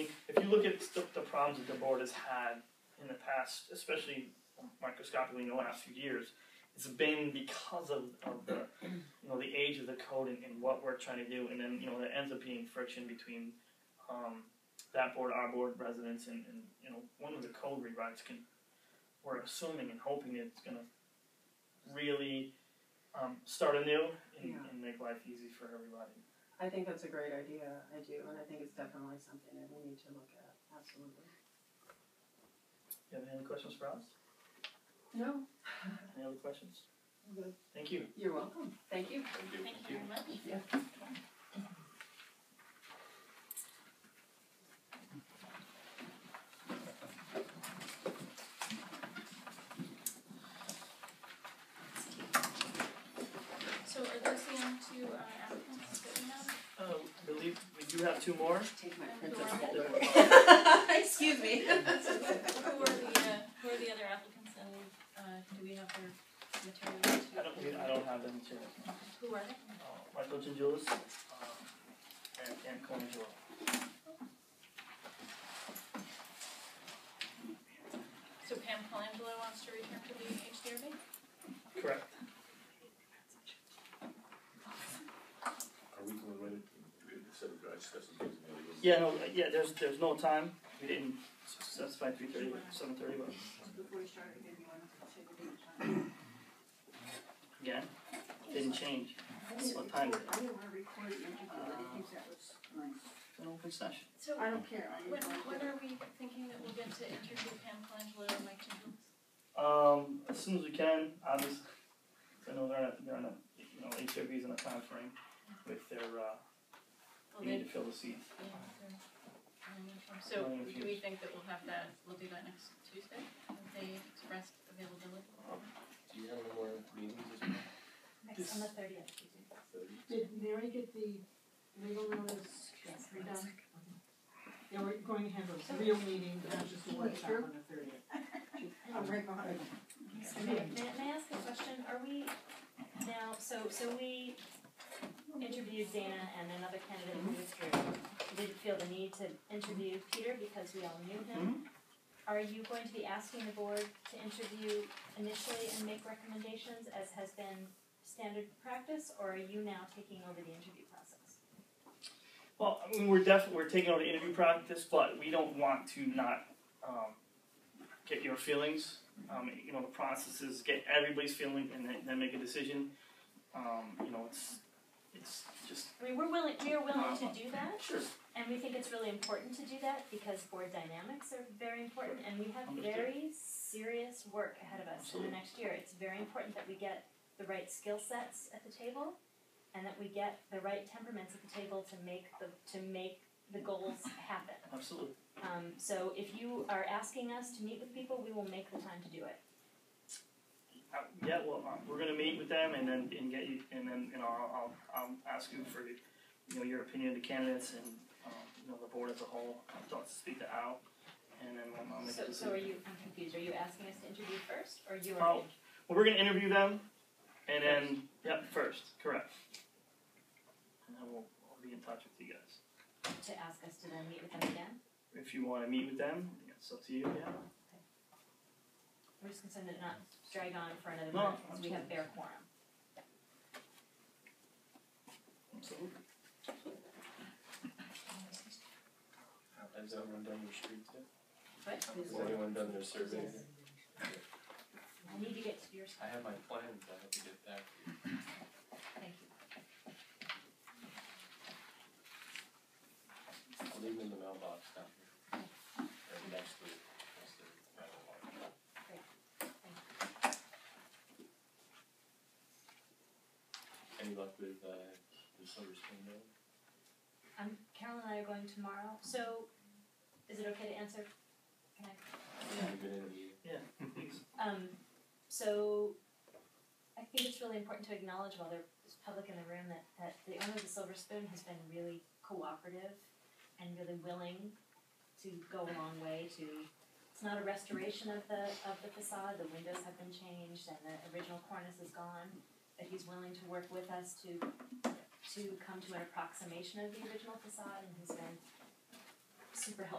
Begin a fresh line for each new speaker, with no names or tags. you look at the, the problems that the board has had in the past, especially microscopically in the last few years, it's been because of, of the you know the age of the code and, and what we're trying to do, and then you know there ends up being friction between um, that board, our board, residents, and, and you know one of the code rewrites can we're assuming and hoping it's going to really um, start anew and,
Yeah.
and make life easy for everybody.
I think that's a great idea. I do, and I think it's definitely something that we need to look at. Absolutely.
You have any other questions for us?
No,
Any other questions?
I'm good.
Thank you.
you're welcome. Thank you.
Thank you.
Thank you very much. So are those the only two uh, applicants that we have?
Uh, I believe we do have two more.
Take my
There
princess.
were-
Excuse me.
Who are the, uh, who are the other applicants and uh, do we have their materials?
I don't, we- I don't have them too.
Who are they?
Uh, Michael Gingulis, um, and Cam Colangelo.
So Pam Colangelo wants to return to the HDRB?
Correct.
Are we going right? We said we got discussed some things in the other room.
Yeah, no, uh, yeah, there's, there's no time. We didn't specify three thirty, seven thirty, but
Before you start again, you want to take a deep time.
again, didn't change. What time is it?
I didn't want to record the interview, I think that was nice.
An open session.
So
I don't care, I
when,
didn't want to.
when are we thinking that we'll get to interview Pam Colangelo and Mike Gingelis?
Um, as soon as we can, obviously, I know they're on, a- they're on a, you know, HRV's in a time frame with their, uh,
Well,
need to
they,
fill the seats.
yeah, they're- they're- So do we think that we'll have that, we'll do that next Tuesday? If they express availability?
Do you have any more meetings this month?
This-
Next on the thirtieth,
Thirty?
Did Mary get the legal notice redone?
Yeah, we're going to have a real meeting, not just a workshop on the thirtieth.
I'm right behind you.
so may, may may I ask a question, are we now, so, so we interviewed Dana and another candidate who withdrew. We Didn't feel the need to interview Peter because we all knew him. Are you going to be asking the board to interview initially and make recommendations as has been standard practice, or are you now taking over the interview process?
Well, I mean, we're definitely, we're taking on the interview practice, but we don't want to not, um, get your feelings. Um, you know, the process is get everybody's feeling and then, then make a decision. Um, you know, it's, it's just,
I mean, we're willing, we are willing to do that,
sure,
And we think it's really important to do that because board dynamics are very important and we have
Understood.
very serious work ahead of us in
Absolutely.
the next year. It's very important that we get the right skill sets at the table and that we get the right temperaments at the table to make the, to make the goals happen.
absolutely.
Um, so if you are asking us to meet with people, we will make the time to do it.
Uh, Yeah, well, um, we're gonna meet with them and then, and get you, and then, you know, I'll, I'll, I'll ask you for, you know, your opinion of the candidates and, um, you know, the board as a whole, I'll talk to speak to Al, and then I'll- I'll make a
So,
decision.
so are you, I'm confused, are you asking us to interview first or you are?
Oh, well, we're gonna interview them, and then, yep, first, correct. And then we'll, we'll be in touch with you guys.
To ask us to then meet with them again?
If you wanna meet with them, it's up to you, yeah.
We're just concerned that not drag on for another
No,
month because we have fair quorum.
Absolutely.
Has everyone done their street yet?
What?
Has anyone done their survey yet?
I need to get to yours.
I have my plans, I have to get back.
Thank you.
I'll leave them in the mailbox down here. Or next week, once they're right along. Any luck with, uh, the Silver Spring Mill?
Um, Carol and I are going tomorrow, so is it okay to answer? Can I-
Have you been in the,
Please.
Um, so I think it's really important to acknowledge while there's public in the room that, that the owner of the Silver Spoon has been really cooperative and really willing to go a long way to, it's not a restoration of the, of the facade, the windows have been changed and the original cornice is gone, but he's willing to work with us to, to come to an approximation of the original facade and he's been super helpful